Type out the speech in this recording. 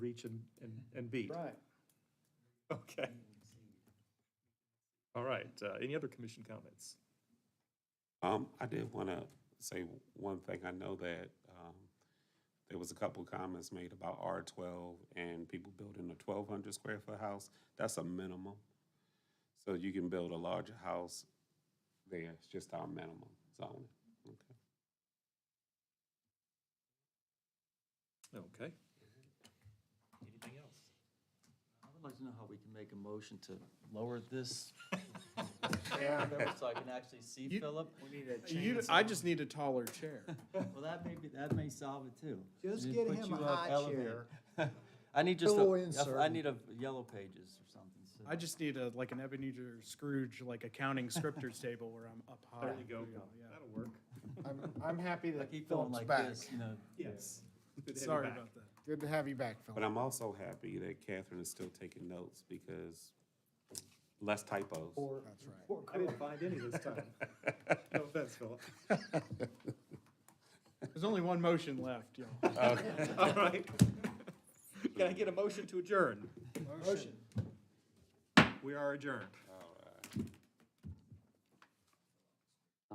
reach and, and and beat. Right. Okay. All right, uh, any other commission comments? Um, I did want to say one thing. I know that um, there was a couple comments made about R twelve and people building a twelve hundred square foot house. That's a minimum. So you can build a larger house there. It's just our minimum zoning. Okay. Okay, Anything else? I would like to know how we can make a motion to lower this Yeah. number so I can actually see Philip. You, I just need a taller chair. Well, that may be, that may solve it too. Just Just get put him a you up, high elevate. chair. I need just, Pillow a- I insert. need a yellow pages or something. so- I just need a, like an Ebenezer Scrooge, like accounting scripters table where I'm up high. there you go. That'll work. I'm, I'm happy I that keep going Philip's like back. this, you know. Yes. Good to have you Sorry back. about that. Good to have you back, But Philip. I'm also happy that Catherine is still taking notes because less typos. That's right. I didn't find any this time. No offense, Philip. There's only one motion left, y'all. All right. Can I get a motion to adjourn? Motion. We are adjourned.